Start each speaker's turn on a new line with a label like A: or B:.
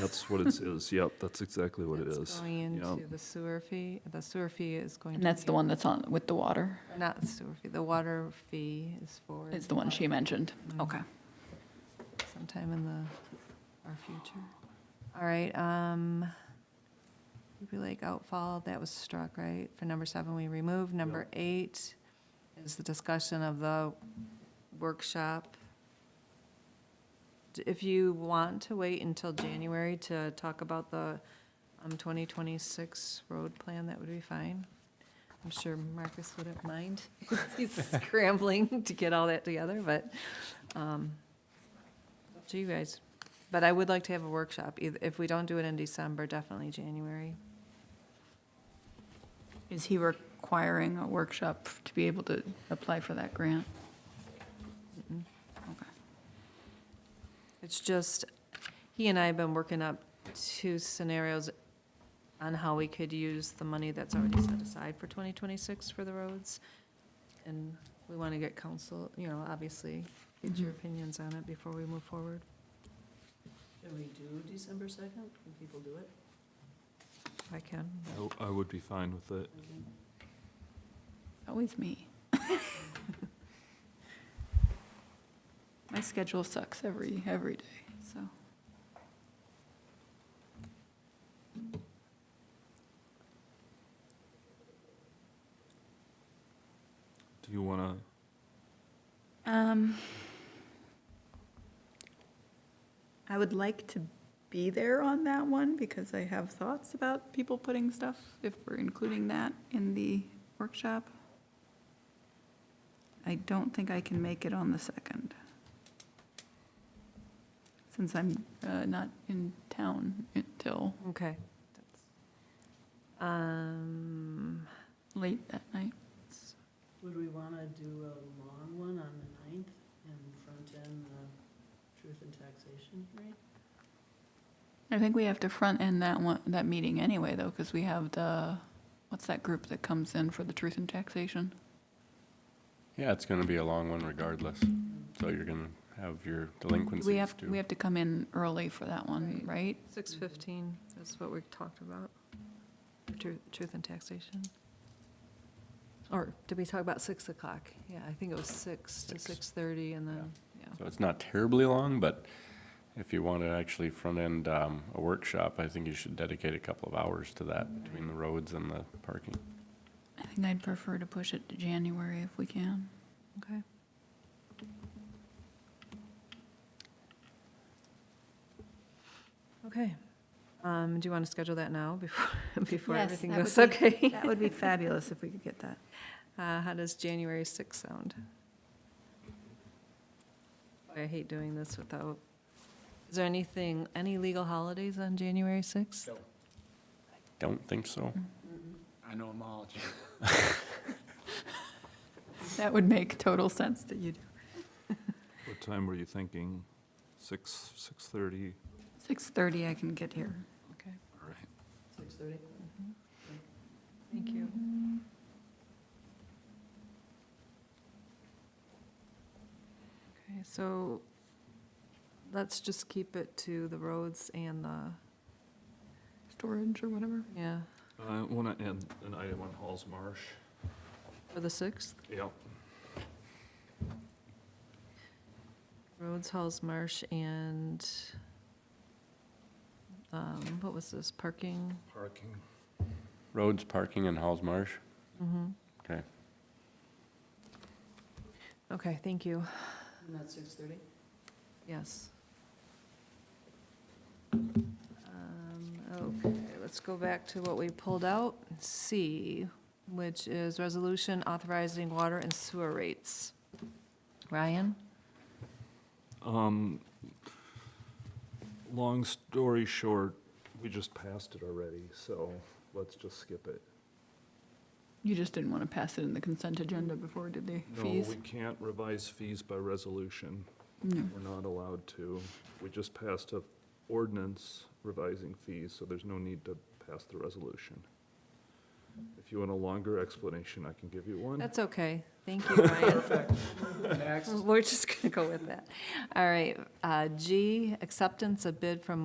A: That's what it is. Yep, that's exactly what it
B: That's
A: is.
B: Going into
A: Yep.
B: the sewer fee, the sewer fee is going to.
C: And that's
B: be-
C: the one that's on, with the water,
B: Not the sewer fee, the water fee is for.
C: is the one she mentioned. Okay.
B: Sometime in the, our future. All right, um, Ruby Lake outfall, oh, that was struck, right? For number seven, we removed. Number eight is the discussion of the workshop. D- If you want to wait until January to talk about the, um, twenty twenty-six road plan, that would be fine. I'm sure Marcus wouldn't mind. He's scrambling to get all that together, but, um, up to you guys. But I would like to have a workshop, eith- if we don't do it in December, definitely January.
C: Is he requiring a workshop to be able to apply for that grant? Okay.
B: It's just, he and I have been working up two scenarios on how we could use the money that's already set aside for 2026 for the roads. And we want to get council, you know, obviously, get your opinions on it before we move forward.
D: Can we do December second? Can people do it?
B: If I can,
A: I would be fine with it.
C: Always me. My schedule sucks every, every day, so.
A: Do you want
C: Um,
E: I would like to be there on that one because I have thoughts about people putting stuff, if we're including that in the workshop. I don't think I can make it on the second.
C: since I'm, uh, not in town until
B: okay. Um,
C: late that night.
D: Would we wanna do a long one on the ninth and front end the truth and taxation hearing?
C: I think we have to front end that one, that meeting anyway, though, because we have the, what's that group that comes in for the truth and taxation?
F: Yeah, it's gonna be a long one regardless, so you're gonna have your delinquencies
C: We have,
F: too.
C: we have to come in early for that one, right?
B: 6:15, that's what we talked about, Tru- truth and taxation. Or did we talk about 6 o'clock? Yeah, I think it was 6 to
F: Six.
B: 6:30 and then, yeah.
F: So it's not terribly long, but if you want to actually front-end um, a workshop, I think you should dedicate a couple of hours to that between the roads and the parking.
C: I think I'd prefer to push it to January if we can.
B: Okay. Okay. Um, Do you want to schedule that now before, before
E: Yes,
B: everything
E: that
B: goes?
E: would be-
B: Okay.
E: That would be fabulous if we could get that.
B: Uh, How does January 6th sound? Boy, I hate doing this without, is there anything, any legal holidays on January 6th?
F: Don't think so.
G: I know them all. Jim.
C: That would make total sense that you do.
A: to, what time were you thinking? Six, 6:30?
C: Six thirty, I can get here.
A: All right.
D: Six thirty?
B: Mm-hmm. Thank you. Okay, so let's just keep it to the roads and the,
C: Storage or whatever.
B: yeah,
A: I want to add an item on Halls Marsh.
B: for the 6th,
A: Yep.
B: roads, Halls Marsh, and, um, what was this, parking?
A: Parking.
F: Roads, parking, and Halls Marsh,
B: Mhm.
F: okay.
B: Okay, thank you.
D: And that's six thirty?
B: Yes. Um, Okay, let's go back to what we pulled out, C, which is resolution authorizing water and sewer rates. Ryan?
A: Um, long story short, we just passed it already, so let's just skip it.
C: You just didn't want to pass it in the consent agenda before, did the
A: No,
C: fees?
A: we can't revise fees by resolution.
C: No.
A: We're not allowed to. We just passed a ordinance revising fees, so there's no need to pass the resolution. If you want a longer explanation, I can give you one.
B: That's okay. Thank you, Ryan.
G: Next.
B: We're just going to go with that. All right, uh, G, acceptance of bid from